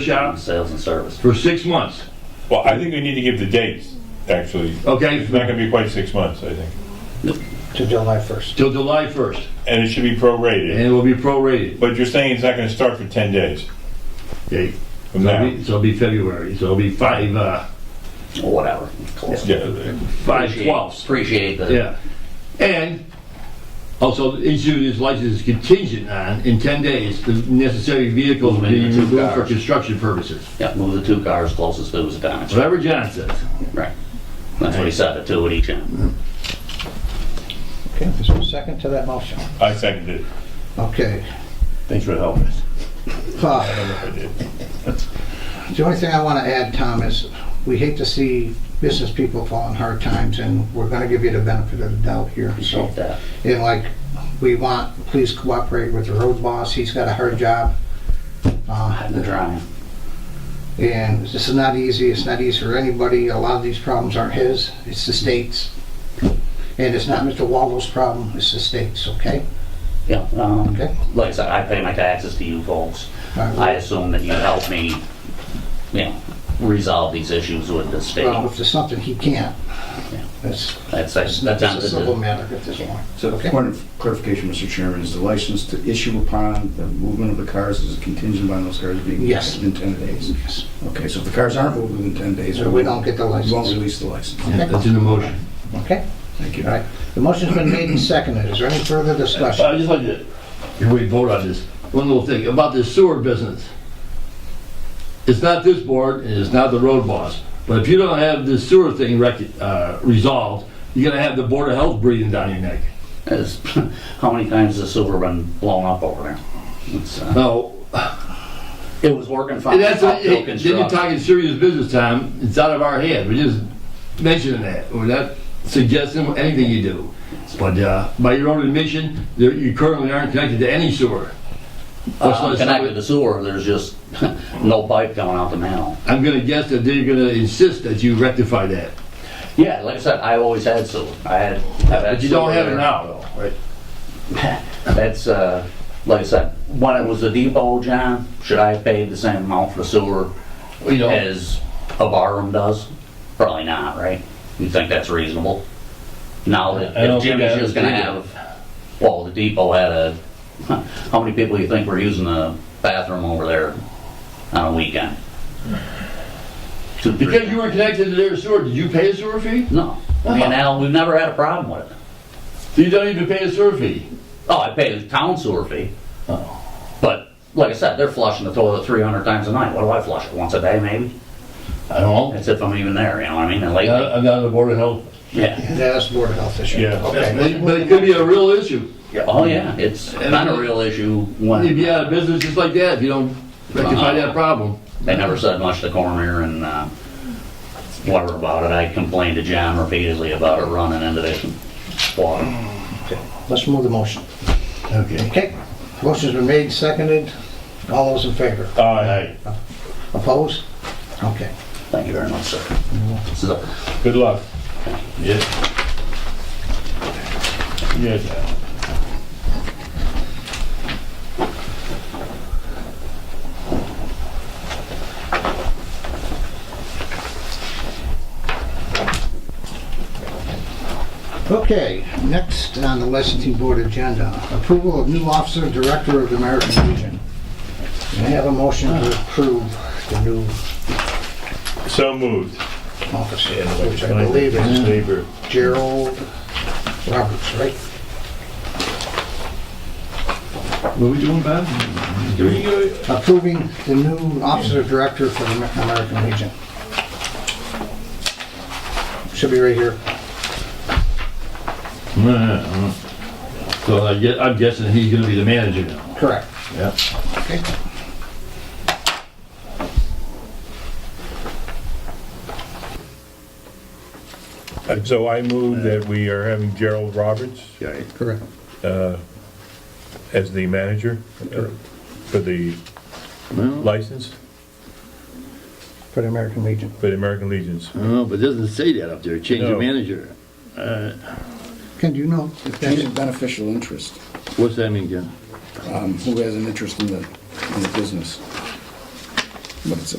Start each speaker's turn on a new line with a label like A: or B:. A: shop
B: sales and service.
A: for six months,
C: Well, I think we need to give the dates, actually.
A: okay,
C: It's not gonna be quite six months, I think.
D: to July 1st.
A: till July 1st,
C: And it should be
A: and
C: prorated.
A: it will be prorated.
C: But you're saying it's not gonna start for 10 days
A: Okay,
C: from
A: so it'll
C: now?
A: be- so it'll be February, so it'll be five, uh,
B: or Whatever. Close.
C: Yeah,
A: five
B: Appreciate-
A: twelfths,
B: Appreciate the.
A: yeah. And also, the issue of this license is contingent on, in 10 days, the necessary vehicles
B: Moving
A: being
B: the two
A: removed for
B: cars.
A: construction purposes.
B: Yeah, move the two cars closest to his damage.
A: Whatever John says.
B: Right. Mm-hmm. That's what he said, the two at each end.
D: Okay, is there a second to that motion?
C: I seconded it.
D: Okay.
A: Thanks for helping us.
D: Uh,
C: I did.
D: The only thing I want to add, Tom, is we hate to see business people fall in hard times, and we're going to give you the benefit of the doubt here, so.
B: Appreciate that.
D: And like, we want, please cooperate with the road boss, he's got a hard job. Uh,
B: Hiding the drawing.
D: And this is not easy, it's not easy for anybody, a lot of these problems aren't his, it's the state's. And it's not Mr. Waldo's problem, it's the state's, okay?
B: Yeah, um,
D: Okay.
B: like I said, I pay my taxes to you folks. I assume that you help me, you know, resolve these issues with the
D: Well,
B: state.
D: if there's something he can't, that's,
B: That's,
D: it's
B: that's
D: not just a
B: attempted
D: simple
B: to,
D: matter at this point.
E: So
D: Okay.
E: point of clarification, Mr. Chairman, is the license to issue upon the movement of the cars is contingent on those cars being
D: Yes.
E: moved in 10 days?
D: Yes.
E: Okay, so if the cars aren't moved within 10 days...
D: So we don't get the
E: We won't
D: license,
E: release the license.
A: That's in the motion.
D: okay?
E: Thank you.
D: All right, the motion's been made and seconded, is there any further discussion?
A: I just like to, if we vote on this, one little thing about this sewer business. It's not this board and it's not the road boss, but if you don't have this sewer thing rec, uh, resolved, you're gonna have the Board of Health breathing down your neck.
B: is, how many times has the sewer been blown up over there? It's, uh,
A: No,
B: It was working fine.
A: and that's,
B: up till
A: hey, then you're
B: construction.
A: talking serious business time, it's out of our head, we're just mentioning that, we're not suggesting anything you do. But, uh, by your own admission, there- you currently aren't connected to any sewer. Let's
B: Uh,
A: not-
B: Connected to sewer, there's just no pipe going out the manhole.
A: I'm gonna guess that they're gonna insist that you rectify that.
B: Yeah, like I said, I always had sewer. I had.
A: But you don't have it now, though, right?
B: That's, uh, like I said, when it was the depot, John, should I have paid the same amount for sewer
A: Well, You know,
B: as a barroom does? Probably not, right? You think that's reasonable? Now that
A: I don't
B: if Jimmy's
A: think I
B: just gonna
A: would
B: have, well, the depot had a, how many people you think were using the bathroom over there on a weekend? Two, three.
A: because you were connected to their sewer, did you pay a sewer fee?
B: No, me and Al, we've never had a problem with it.
A: So you don't even pay a sewer fee?
B: Oh, I pay the town sewer fee. But like I said, they're flushing the toilet 300 times a night. What do I flush it once a day, maybe?
A: I don't know.
B: That's if I'm even there. You know what I mean? And
A: I'm
B: lately,
A: not- I'm not on the board of health.
B: yeah.
D: Yeah, that's Board of Health issue.
C: Yeah.
D: Okay.
A: But but it could be a real issue.
B: Oh yeah, it's
A: And-
B: been a real issue
A: You'd be
B: when
A: out of business just like that if you don't rectify that problem.
B: they never said much to coroner and uh, whatever about it. I complained to John repeatedly about it running into this water.
D: Let's move the motion.
A: Okay.
D: Okay, motion's been made, seconded, all those in favor?
C: Aye.
D: Opposed? Okay.
B: Thank you very much, sir. This is a-
C: Good luck. Yes. Yes.
D: Okay, next on the licensing board agenda, approval of new officer director of the American Legion. May I have a motion to approve the new
C: So moved.
D: officer, which I believe is
C: Labor.
D: Gerald Roberts, right?
A: What are we doing, Bob?
D: Approving the new officer director for the American Legion. Should be right here.
A: So I guess, I'm guessing he's gonna be the manager now.
D: Correct.
A: Yeah.
D: Okay.
C: So I move that we are having Gerald Roberts
D: Correct.
C: as the manager uh, for the license
D: For the American Legion.
C: for the American Legions.
A: No, but it doesn't say that up there, change
C: No.
A: of manager.
D: Ken, do you know? if
E: Change
D: that's-
E: of beneficial interest,
A: What's that mean, Ken?
E: um, who has an interest in the, in the business. but it's